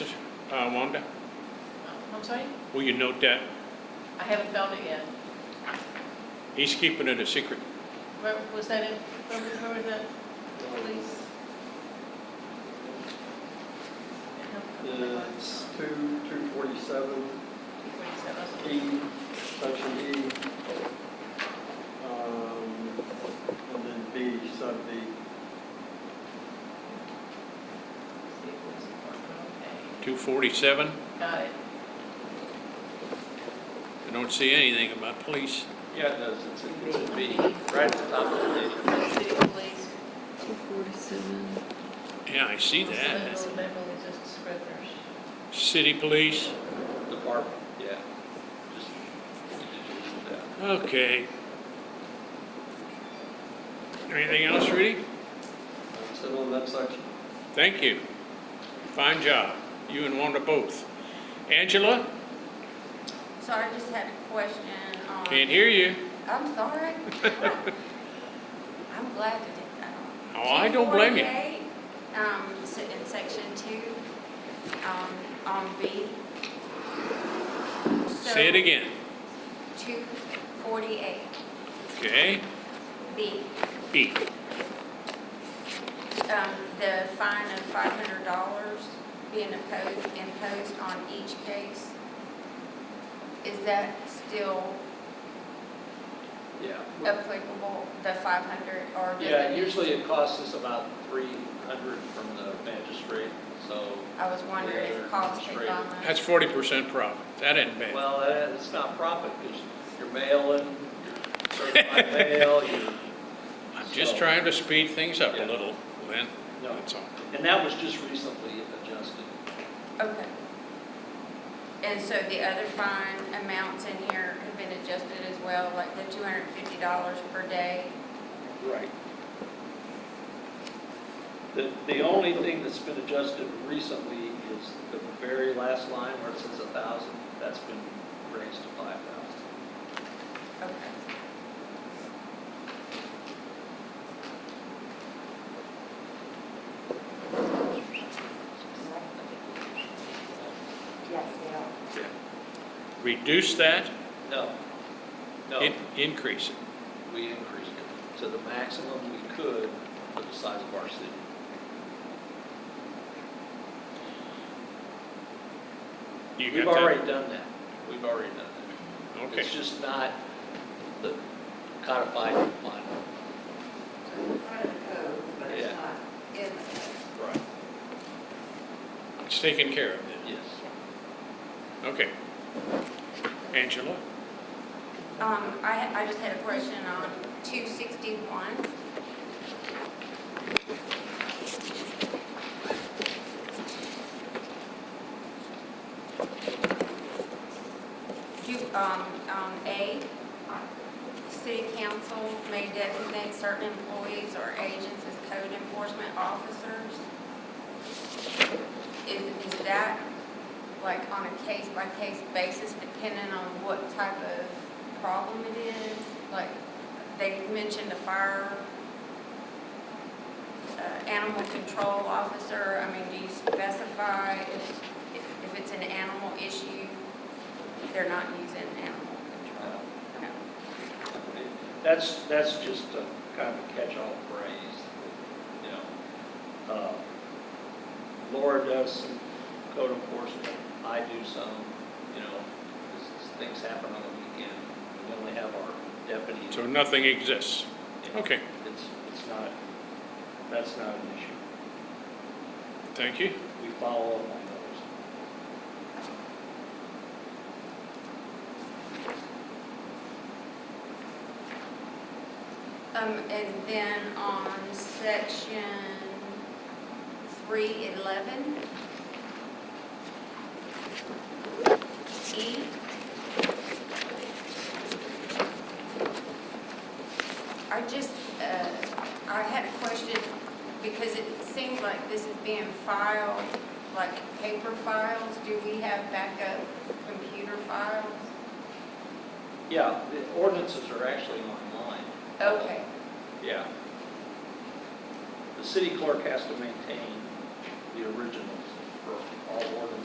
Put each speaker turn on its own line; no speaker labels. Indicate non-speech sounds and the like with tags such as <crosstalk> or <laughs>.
uh, Wanda?
I'm sorry?
Will you note that?
I haven't found it yet.
He's keeping it a secret.
Where, was that in, where was, where was that release?
It's two, two forty-seven, E, section E. um, And then B, sub B.
Okay,
247,
Got it.
I don't see anything about police.
Yeah, it does, it's
in B, right at the top
of the
City police.
247.
Yeah, I see that.
Legal, legal, it's just descriptors.
City police,
department, yeah.
okay. Anything else, Rudy?
That's it on that section.
Thank you. Fine job, you and Wanda both. Angela,
So I just had a question on.
can't hear you.
I'm
<laughs>
sorry. I'm glad you did that.
Oh, I don't blame you.
248, Um, s- in section two, um, on B.
Say it again,
Two forty-eight,
okay?
B,
B,
um, the fine of five hundred dollars being imposed, imposed on each case. Is that still
Yeah.
applicable, the five hundred, or? do
Yeah,
they-
usually it costs us about three hundred from the magistrate, so,
I was wondering
Yeah,
if costs had
straight.
gone up.
that's 40% profit, that ain't bad.
well, that- it's not profit, because you're mailing, you're certified <laughs> mail, you're,
I'm just
so-
trying to speed things up a
Yeah.
little, Lynn,
no.
that's all.
And that was just recently adjusted.
Okay. And so the other fine amounts in here have been adjusted as well, like the two hundred and fifty dollars per day?
Right. The, the only thing that's been adjusted recently is the very last line where it says a thousand, that's been raised to five thousand.
Okay.
Yes, they are.
Reduce that,
No, no,
in- increase it.
we increased it to the maximum we could for the size of our city.
You
We've
got that?
already done that, we've already done that.
Okay,
It's just not the codified and final.
So it's part of the code, but
Yeah.
it's not in the code.
Right.
it's taken care of then.
Yes.
Okay. Angela?
Um, I, I just had a question on two sixty-one. Do, um, um, A, city council may designate certain employees or agents as code enforcement officers. Is, is that like on a case-by-case basis, depending on what type of problem it is? Like, they mentioned a fire, uh, animal control officer, I mean, do you specify if, if- if it's an animal issue, they're not using animal control? No.
That's, that's just a kind of a catch-all phrase, you know. Uh, Laura does some code enforcement, I do some, you know, 'cause things happen on the weekend. We only have our deputy.
So nothing exists. Okay,
It's, it's not, that's not an issue.
thank you.
We follow up on those.
Um, and then on section three eleven. E. I just, uh, I had a question because it seems like this is being filed, like paper files. Do we have backup computer files?
Yeah, the ordinances are actually online.
Okay,
Yeah. The city clerk has to maintain the originals for all ordinances